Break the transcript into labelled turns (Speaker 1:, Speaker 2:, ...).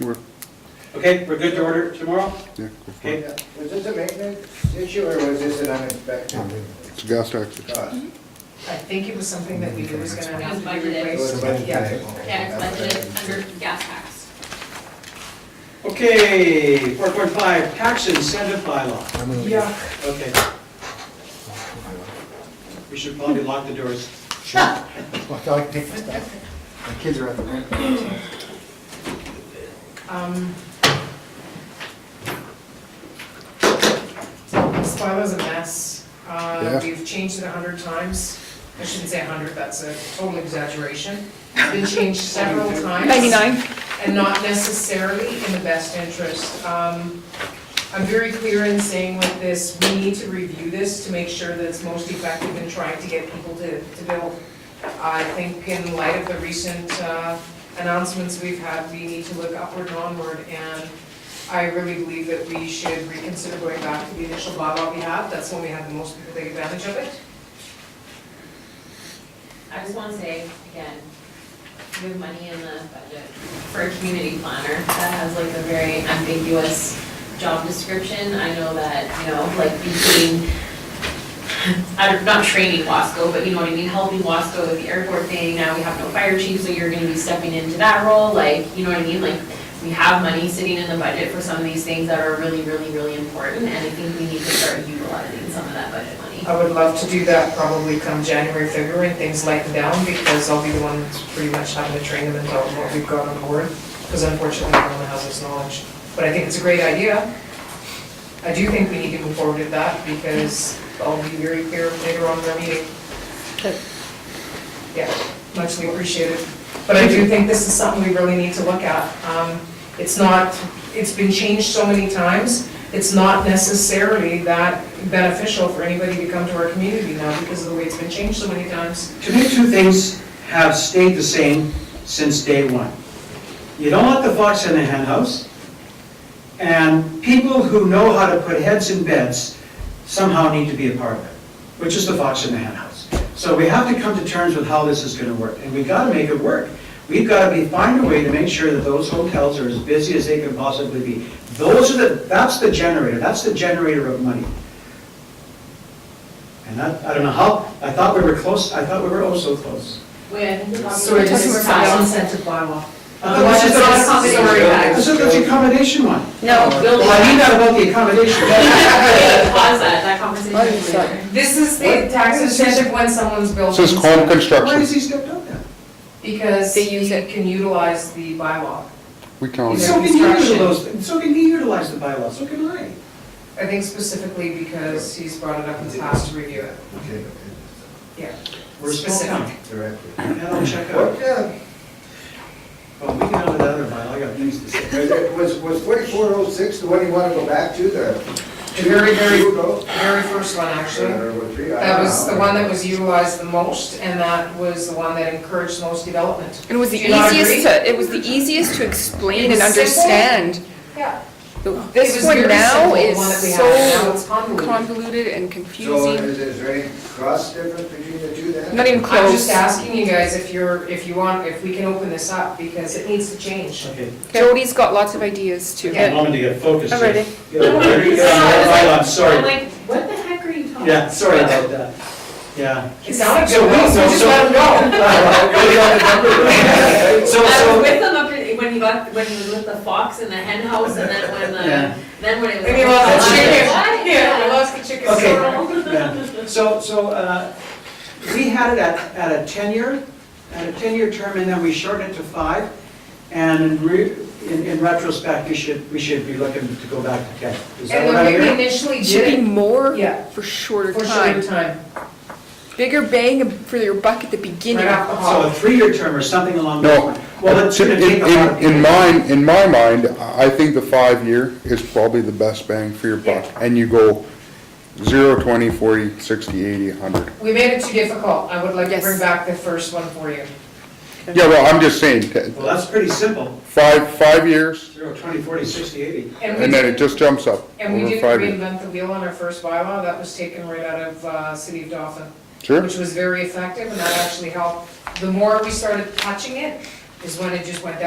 Speaker 1: We're-
Speaker 2: Okay, we're good to order tomorrow?
Speaker 1: yeah,
Speaker 2: Okay,
Speaker 3: Was this a maintenance issue or was this an unexpected
Speaker 1: It's a gas tax.
Speaker 2: Uh,
Speaker 3: cost?
Speaker 4: I think it was something that we knew was gonna have to be
Speaker 5: Budgeted.
Speaker 3: It was
Speaker 4: replaced.
Speaker 3: a budget
Speaker 4: Yeah.
Speaker 3: item.
Speaker 5: Yeah, it's budgeted under gas tax.
Speaker 2: okay, four point five, tax incentive bylaw,
Speaker 4: Yeah,
Speaker 2: okay. We should probably lock the doors.
Speaker 3: Sure. Well, I like to take my stuff. My kids are at the rink.
Speaker 4: um. This bylaw is a mess. Uh,
Speaker 1: Yeah.
Speaker 4: we've changed it a hundred times. I shouldn't say a hundred, that's a total exaggeration. It's been changed several times.
Speaker 6: 99.
Speaker 4: and not necessarily in the best interest. Um, I'm very clear in saying with this, we need to review this to make sure that it's most effective in trying to get people to, to build. I think in light of the recent uh, announcements we've had, we need to look upward and onward. And I really believe that we should reconsider going back to the initial bylaw we had. That's when we had the most people take advantage of it.
Speaker 5: I just want to say, again, we have money in the budget for a community planner that has like a very ambiguous job description. I know that, you know, like between, I'm not training Wasco, but you know what I mean, helping Wasco with the airport thing, now we have no fire chief, so you're gonna be stepping into that role, like, you know what I mean? Like, we have money sitting in the budget for some of these things that are really, really, really important, and I think we need to start utilizing some of that budget money.
Speaker 4: I would love to do that probably come January, February, and things lighten down, because I'll be the one that's pretty much having to train them and tell them what we've got on board, because unfortunately, no one has this knowledge. But I think it's a great idea. I do think we need to move forward with that, because I'll be very clear later on in our meeting. Yeah, muchly appreciated. But I do think this is something we really need to look at. Um, It's not, it's been changed so many times, it's not necessarily that beneficial for anybody to come to our community now because of the way it's been changed so many times.
Speaker 2: To me, two things have stayed the same since day one. You don't want the fox in the henhouse, and people who know how to put heads in beds somehow need to be a part of it, which is the fox in the henhouse. So we have to come to terms with how this is gonna work, and we gotta make it work. We've gotta be, find a way to make sure that those hotels are as busy as they can possibly be. Those are the, that's the generator, that's the generator of money. And that, I don't know how, I thought we were close, I thought we were oh so close.
Speaker 5: Wait, I think the bottom-
Speaker 4: So Um, we're just
Speaker 5: We're
Speaker 4: about
Speaker 5: fine.
Speaker 4: incentive bylaw.
Speaker 2: I thought this
Speaker 4: Otherwise,
Speaker 2: is the-
Speaker 4: it's
Speaker 5: accommodation.
Speaker 4: sorry, guys.
Speaker 2: This is the accommodation one.
Speaker 6: No,
Speaker 5: "Oh,
Speaker 2: Well, I knew that about the accommodation.
Speaker 5: Wait, Pause that, that conversation
Speaker 6: Why is
Speaker 5: is
Speaker 6: that?
Speaker 5: later.
Speaker 4: This is the tax incentive when someone's building.
Speaker 1: This is home
Speaker 2: Why is
Speaker 1: construction.
Speaker 2: he stepped up then?
Speaker 4: Because
Speaker 6: They
Speaker 4: he
Speaker 6: use it.
Speaker 4: can utilize the bylaw.
Speaker 1: We count
Speaker 4: Yeah.
Speaker 1: it.
Speaker 2: So can you utilize, those- so can he utilize the bylaws, so can I.
Speaker 4: I think specifically because he's brought it up in the past to review it.
Speaker 3: Okay,
Speaker 4: Yeah.
Speaker 2: We're still
Speaker 4: Specific.
Speaker 2: coming.
Speaker 3: directly.
Speaker 2: And I'll check out.
Speaker 3: What, uh,
Speaker 2: Well, we can have another bylaw, I got things to say.
Speaker 3: uh, was, was forty-four oh six the one you want to go back to, the?
Speaker 4: The very, very,
Speaker 3: Or
Speaker 4: very first one, actually.
Speaker 3: was three? I
Speaker 4: That
Speaker 3: don't
Speaker 4: was
Speaker 3: know.
Speaker 4: the one that was utilized the most, and that was the one that encouraged most development.
Speaker 6: It was the
Speaker 4: Do you not agree?
Speaker 6: easiest to, it was the easiest to explain and
Speaker 4: It's simple.
Speaker 6: understand.
Speaker 4: Yeah.
Speaker 6: The- This one now is so
Speaker 4: It's convoluted.
Speaker 6: convoluted and
Speaker 3: So
Speaker 6: confusing.
Speaker 3: is is there any cost difference between the two then?
Speaker 6: Not even
Speaker 4: I'm just
Speaker 6: close.
Speaker 4: asking you guys if you're, if you want, if we can open this up, because it needs to change.
Speaker 2: Okay,
Speaker 6: Jody's got lots of ideas too.
Speaker 2: a moment to get focused.
Speaker 6: I'm ready.
Speaker 2: Get over there, get on that bylaw, I'm
Speaker 5: I'm
Speaker 2: sorry.
Speaker 5: like, what the heck are you talking?
Speaker 2: Yeah, sorry about that. Yeah.
Speaker 4: It sounded
Speaker 2: So
Speaker 4: good,
Speaker 2: we- so-
Speaker 4: so just
Speaker 2: so-
Speaker 4: let 'em go.
Speaker 2: So,
Speaker 5: I was
Speaker 2: so,
Speaker 5: with him up in, when he got, when he was with the fox in the hen house and then when
Speaker 2: Yeah.
Speaker 5: the, then when it was. "Oh,
Speaker 4: Maybe we lost the chicken.
Speaker 5: What?
Speaker 4: Yeah, we lost
Speaker 2: Okay.
Speaker 4: the chicken. So-
Speaker 2: Yeah. So, so, uh, we had it at, at a ten-year, at a ten-year term, and then we shortened it to five. And in re, in, in retrospect, we should, we should be looking to go back to ten. Is that
Speaker 4: And
Speaker 2: what
Speaker 4: the
Speaker 2: I
Speaker 4: way we
Speaker 2: hear?
Speaker 4: initially
Speaker 6: It should be
Speaker 4: did
Speaker 6: more
Speaker 4: Yeah.
Speaker 6: for shorter
Speaker 4: it, for short
Speaker 6: time.
Speaker 4: time,
Speaker 6: Bigger bang for your buck at the beginning.
Speaker 4: right off the hop.
Speaker 2: So a three-year term or something along those
Speaker 1: No.
Speaker 2: lines. Well, it's gonna
Speaker 1: in-
Speaker 2: take a
Speaker 1: in-
Speaker 2: lot of
Speaker 1: In
Speaker 2: people.
Speaker 1: mine, in my mind, I think the five-year is probably the best bang for your buck. And you go zero, twenty, forty, sixty, eighty, hundred.
Speaker 4: We made it too difficult. I would like to
Speaker 6: Yes.
Speaker 4: bring back the first one for you.
Speaker 1: Yeah, well, I'm just saying, t-
Speaker 2: Well, that's pretty simple.
Speaker 1: five, five years,
Speaker 2: Zero, twenty, forty, sixty, eighty.
Speaker 4: And we
Speaker 1: and then it just jumps up
Speaker 4: And we
Speaker 1: over
Speaker 4: didn't
Speaker 1: five years.
Speaker 4: reinvent the wheel on our first bylaw, that was taken right out of uh, City of Dauphin,
Speaker 1: Sure,
Speaker 4: which was very effective, and that actually helped. The more we started touching it, is when it just went down.